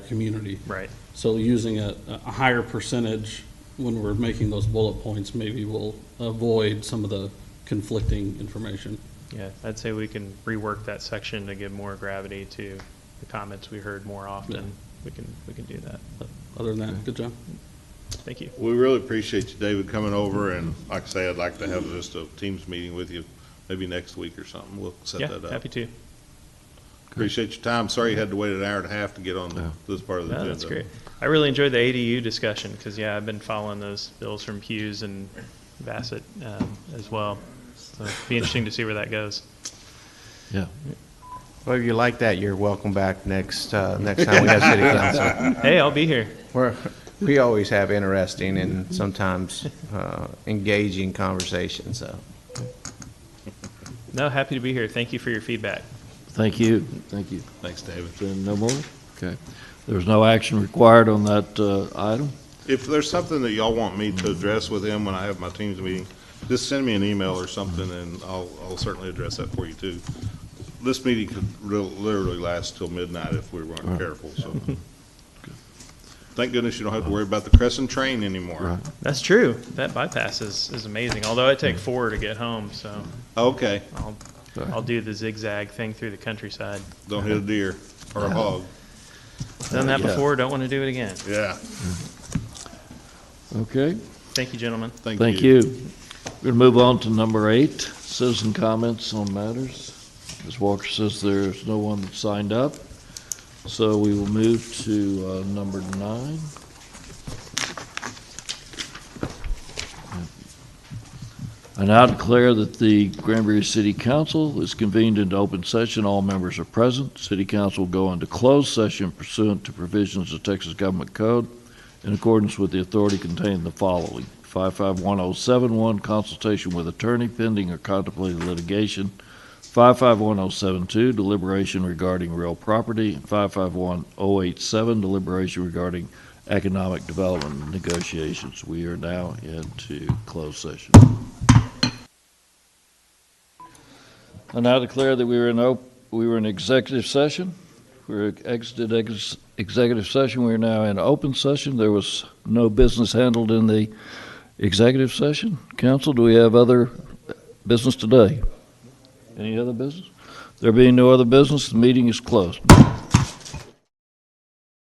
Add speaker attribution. Speaker 1: community.
Speaker 2: Right.
Speaker 1: So using a, a higher percentage when we're making those bullet points, maybe will avoid some of the conflicting information.
Speaker 2: Yeah, I'd say we can rework that section to give more gravity to the comments we heard more often. We can, we can do that.
Speaker 1: But Other than that, good job.
Speaker 2: Thank you.
Speaker 3: We really appreciate you, David, coming over, and like I say, I'd like to have just a Teams meeting with you, maybe next week or something, we'll set
Speaker 2: Yeah,
Speaker 3: that up.
Speaker 2: happy to.
Speaker 3: Appreciate your time, sorry you had to wait an hour and a half to get on this part of the
Speaker 2: No,
Speaker 3: agenda.
Speaker 2: that's great. I really enjoyed the ADU discussion because, yeah, I've been following those bills from Hughes and Bassett um, as well. So it'd be interesting to see where that goes.
Speaker 4: Yeah.
Speaker 5: Well, if you like that, you're welcome back next, uh, next time we have city council.
Speaker 2: Hey, I'll be here.
Speaker 5: We're, we always have interesting and sometimes, uh, engaging conversations, so.
Speaker 2: No, happy to be here. Thank you for your feedback.
Speaker 4: Thank you, thank you.
Speaker 3: Thanks, David.
Speaker 4: Then no more? Okay. There's no action required on that uh, item?
Speaker 3: If there's something that y'all want me to address with him when I have my Teams meeting, just send me an email or something, and I'll, I'll certainly address that for you too. This meeting could real- literally last till midnight if we weren't careful, so. Thank goodness you don't have to worry about the Crescent train anymore.
Speaker 4: Right.
Speaker 2: That's true. That bypass is, is amazing, although I take four to get home, so
Speaker 3: Okay,
Speaker 2: I'll, I'll do the zigzag thing through the countryside.
Speaker 3: don't hit a deer or a
Speaker 4: Uh-huh.
Speaker 3: hog,
Speaker 2: Done that
Speaker 4: Yeah.
Speaker 2: before, don't want to do it again.
Speaker 3: yeah,
Speaker 4: Okay,
Speaker 2: Thank you, gentlemen.
Speaker 3: thank you.
Speaker 4: thank you. We're going to move on to number eight, citizen comments on matters. Ms. Walker says there's no one that signed up, so we will move to uh, number nine. I now declare that the Granbury City Council is convened into open session. All members are present. City Council will go into closed session pursuant to provisions of Texas Government Code in accordance with the authority contained in the following. 551071, consultation with attorney pending or contemplated litigation. 551072, deliberation regarding real property. and 551087, deliberation regarding economic development negotiations. We are now into closed session. I now declare that we were in, op- we were in executive session. We exited ex- executive session. We are now in open session. There was no business handled in the executive session. Council, do we have other business today? Any other business? There being no other business, the meeting is closed.